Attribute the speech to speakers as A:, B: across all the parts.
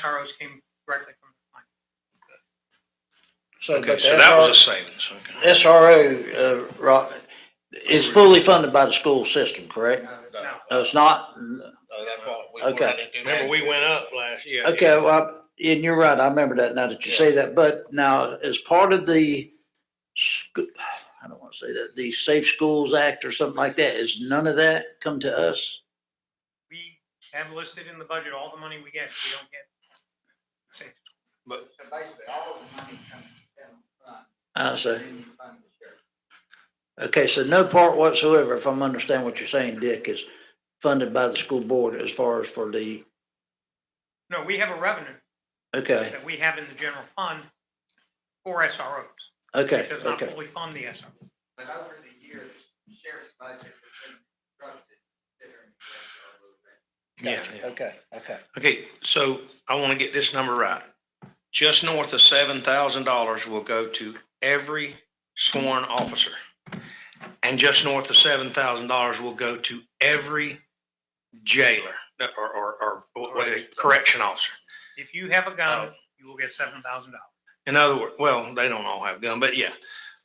A: SROs came directly from the client.
B: So,
C: Okay,
B: but the
C: so that was a
B: SRO,
C: savings, okay.
B: SRO, uh, Ro- is fully funded by the school system, correct?
A: No.
B: No, it's not?
D: No, that's what we
B: Okay.
D: wanted to do.
C: Remember, we went up last year.
B: Okay, well, and you're right, I remember that now that you say that, but now, as part of the, sc- I don't want to say that, the Safe Schools Act or something like that, is none of that come to us?
A: We have listed in the budget all the money we get, we don't get. say,
E: So basically, all the money comes to general fund,
B: I say,
E: then you fund the sheriff.
B: okay, so no part whatsoever, if I'm understanding what you're saying, Dick, is funded by the school board as far as for the,
A: No, we have a revenue
B: okay,
A: that we have in the general fund for SROs.
B: okay,
A: It does not
B: okay.
A: fully fund the SRO.
E: But over the years, the sheriff's budget has been constructed considering the SRO rate.
C: Yeah,
B: Gotcha.
C: yeah.
B: Okay, okay.
C: Okay, so I want to get this number right. Just north of seven thousand dollars will go to every sworn officer. And just north of seven thousand dollars will go to every jailer uh, or, or, or what, correction officer.
A: If you have a
C: Oh.
A: gun, you will get seven thousand dollars.
C: In other words, well, they don't all have gun, but yeah.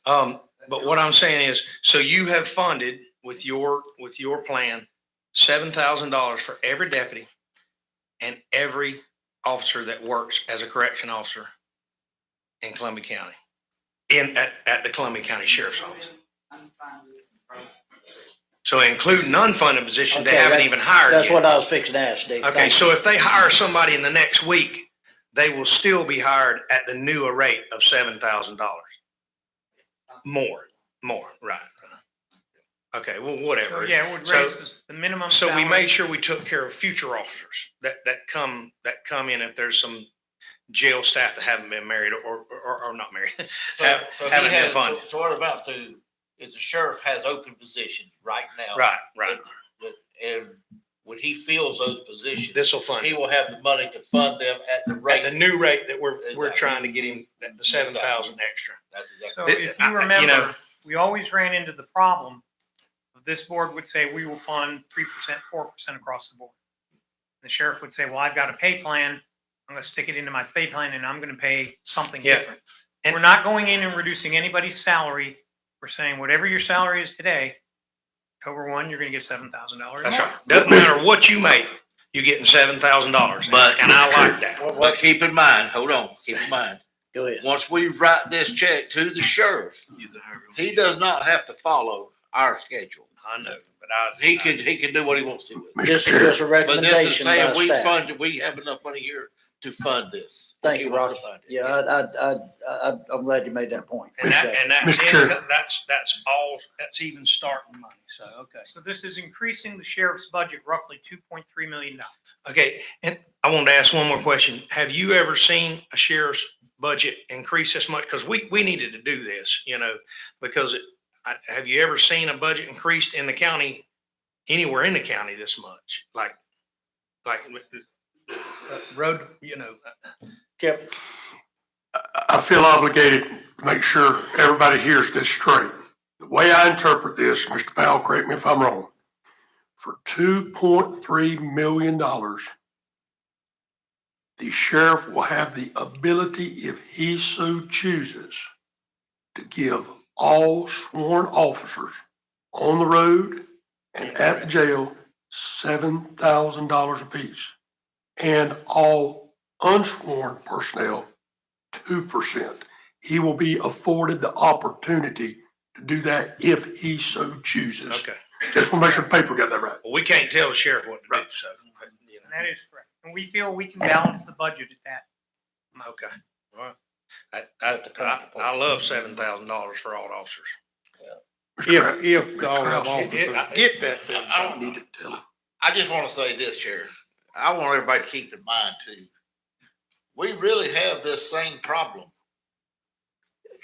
C: Um, But what I'm saying is, so you have funded with your, with your plan, seven thousand dollars for every deputy and every officer that works as a correction officer in Columbia County, in, at, at the Columbia County Sheriff's Office.
E: Unfunded and broken.
C: So including unfunded positions they
B: Okay,
C: haven't
B: that-
C: even hired
B: That's what
C: yet.
B: I was fixing to ask, Dick.
C: Okay,
B: Thank
C: so if they hire somebody in the next week, they will still be hired at the newer rate of seven thousand dollars. More, more, right. right. Okay, well,
A: So,
C: whatever.
A: yeah, it would
C: So-
A: raise this- the minimum.
C: So we
A: salary.
C: made sure we took care of future officers that, that come, that come in if there's some jail staff that haven't been married or, or, or not married.
D: So,
C: Have-
D: so he
C: haven't been
D: has, so
C: funded.
D: so what about the, is the sheriff has open positions right now?
C: Right, right.
D: But- And when he fills those positions,
C: This will fund
D: he
C: it.
D: will have the money to fund them at the
C: At the
D: rate.
C: new rate that we're, we're
D: Exactly.
C: trying to get him, at the seven thousand extra.
D: That's exactly,
A: So
C: Th-
A: if
C: I- I-
A: you
C: you
A: remember,
C: know-
A: we always ran into the problem. of This board would say, we will fund three percent, four percent across the board. The sheriff would say, well, I've got a pay plan. I'm gonna stick it into my pay plan and I'm gonna pay something
C: Yeah.
A: different.
C: And-
A: We're not going in and reducing anybody's salary. We're saying whatever your salary is today, October one, you're gonna get seven thousand dollars.
C: That's right. Doesn't matter what you make, you're getting seven thousand dollars.
D: But-
C: And I like that.
B: you. What-
D: but
B: what-
D: keep in mind, hold on, keep in mind,
B: Go ahead.
D: once we write this check to the sheriff, he does not have to follow our schedule.
C: I know, but I.
D: He can, he can do what he wants to with it.
B: Just, just a
D: But this is
B: recommendation by
D: saying we
B: staff.
D: fund, we have enough money here to fund this.
B: Thank
D: He
B: you, Rocky.
D: wants to fund it.
B: Yeah, I, I, I, I, I'm glad you made that point.
C: And that,
B: Appreciate it.
C: and that's,
F: Mr. Chair.
C: income- that's, that's all, that's even starting money, so, okay.
A: So this is increasing the sheriff's budget roughly two point three million dollars.
C: Okay, and I wanted to ask one more question. Have you ever seen a sheriff's budget increase this much? Because we, we needed to do this, you know, because it, I, have you ever seen a budget increased in the county, anywhere in the county this much? Like, like, with the- uh, road, you know,
B: Kept,
F: I feel obligated to make sure everybody hears this straight. The way I interpret this, Mr. Powell, correct me if I'm wrong, for two point three million dollars, the sheriff will have the ability, if he so chooses, to give all sworn officers on the road and at the jail seven thousand dollars apiece, and all unsworn personnel two percent. He will be afforded the opportunity to do that if he so chooses.
C: okay.
F: Just want to make sure the paper got that right.
C: Well, we can't tell the sheriff what to do, so, you know.
A: And that is correct. And we feel we can balance the budget at that.
C: Okay, all right. I, I, I, I love seven thousand dollars for all officers.
F: Mr. Kraft,
G: If, if the
F: Mr. Kraft,
G: officer
C: It- it-
G: get that
D: I-
G: thing.
D: I
F: I
D: don't
F: Need to tell him.
D: I just want to say this, Sheriff. I want everybody to keep in mind too. We really have this same problem.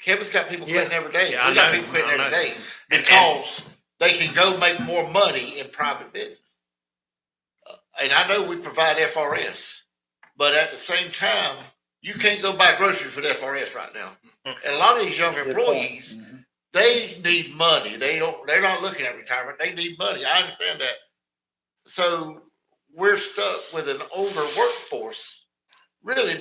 D: Kevin's got people quitting
C: Yeah.
D: every day.
C: Yeah, I
D: We got
C: know.
D: people quitting
C: I
D: every
C: know.
D: day
C: And- and-
D: because they can go make more money in private business. Uh, And I know we provide FRS, but at the same time, you can't go buy groceries with FRS right now. And a lot of these young
B: good point.
D: employees,
B: Mhm.
D: they need money. They don't, they're not looking at retirement. They need money. I understand that. So we're stuck with an older workforce really